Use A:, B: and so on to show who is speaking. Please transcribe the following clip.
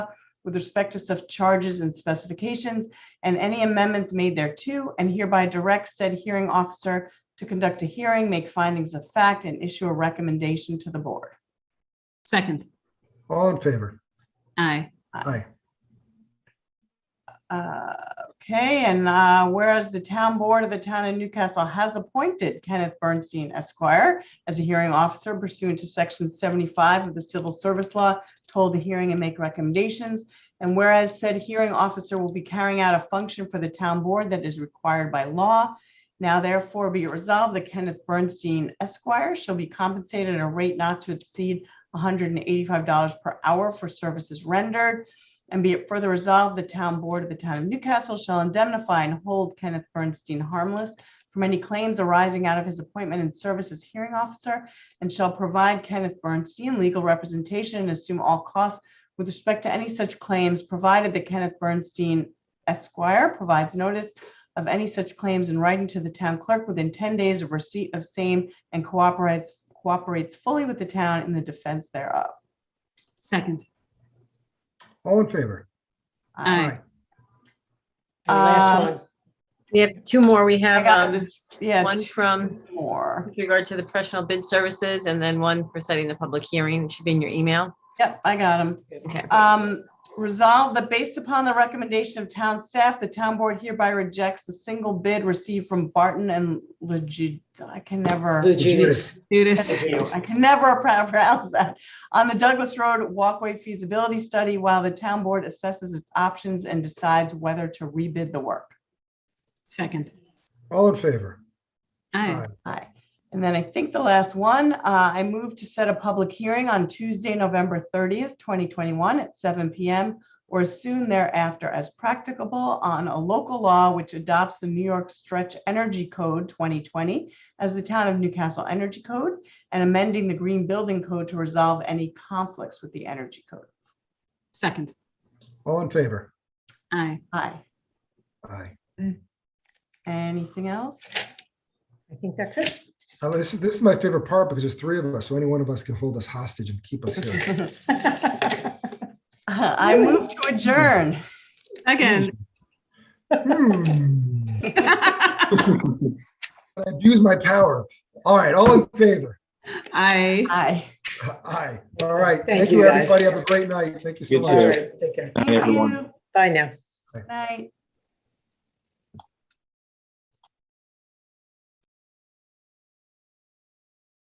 A: with respect to such charges and specifications and any amendments made thereto, and hereby directs said hearing officer to conduct a hearing, make findings of fact, and issue a recommendation to the board.
B: Second.
C: All in favor?
B: Aye.
C: Aye.
A: Uh, Okay, and uh, whereas the town board of the town of Newcastle has appointed Kenneth Bernstein Esquire as a hearing officer pursuant to section 75 of the civil service law, told to hearing and make recommendations. And whereas said hearing officer will be carrying out a function for the town board that is required by law. Now therefore be it resolved that Kenneth Bernstein Esquire shall be compensated at a rate not to exceed $185 per hour for services rendered. And be it further resolved, the town board of the town of Newcastle shall indemnify and hold Kenneth Bernstein harmless from any claims arising out of his appointment and service as hearing officer and shall provide Kenneth Bernstein legal representation and assume all costs with respect to any such claims, provided that Kenneth Bernstein Esquire provides notice of any such claims in writing to the town clerk within ten days of receipt of same and cooperates cooperates fully with the town in the defense thereof.
B: Second.
C: All in favor?
B: Aye.
D: And last
A: Um,
D: one,
E: We have two more. We
A: I
E: have
A: got
E: um,
A: the- yeah,
E: one
A: two
E: from,
A: more.
E: with regard to the professional bid services, and then one for setting the public hearing. It should be in your email.
A: Yep, I got them.
E: Okay.
A: Um, resolve that based upon the recommendation of town staff, the town board hereby rejects the single bid received from Barton and Legit, I can never,
D: the Judas.
B: Judas.
A: I can never pro- pronounce that, on the Douglas Road Walkway feasibility study while the town board assesses its options and decides whether to rebid the work.
B: Second.
C: All in favor?
B: Aye.
A: Aye. And then I think the last one, uh, I move to set a public hearing on Tuesday, November 30th, 2021 at seven PM or soon thereafter as practicable on a local law which adopts the New York Stretch Energy Code 2020 as the Town of Newcastle Energy Code and amending the Green Building Code to resolve any conflicts with the Energy Code.
B: Second.
C: All in favor?
B: Aye.
A: Aye.
C: Aye.
A: Anything else?
D: I think that's it.
C: Now, this, this is my favorite part because there's three of us, so any one of us can hold us hostage and keep us here.
A: I move to adjourn.
B: Second.
C: Hmm. I Abuse my power. All right, all in favor?
B: Aye.
A: Aye.
C: Aye. All right.
D: Thank
C: Thank
D: you,
C: you,
D: guys.
C: everybody. Have a great night. Thank you so
F: You
C: much.
F: too.
D: All right, take care.
A: Thank
F: everyone.
A: you.
D: Bye now.
A: Night.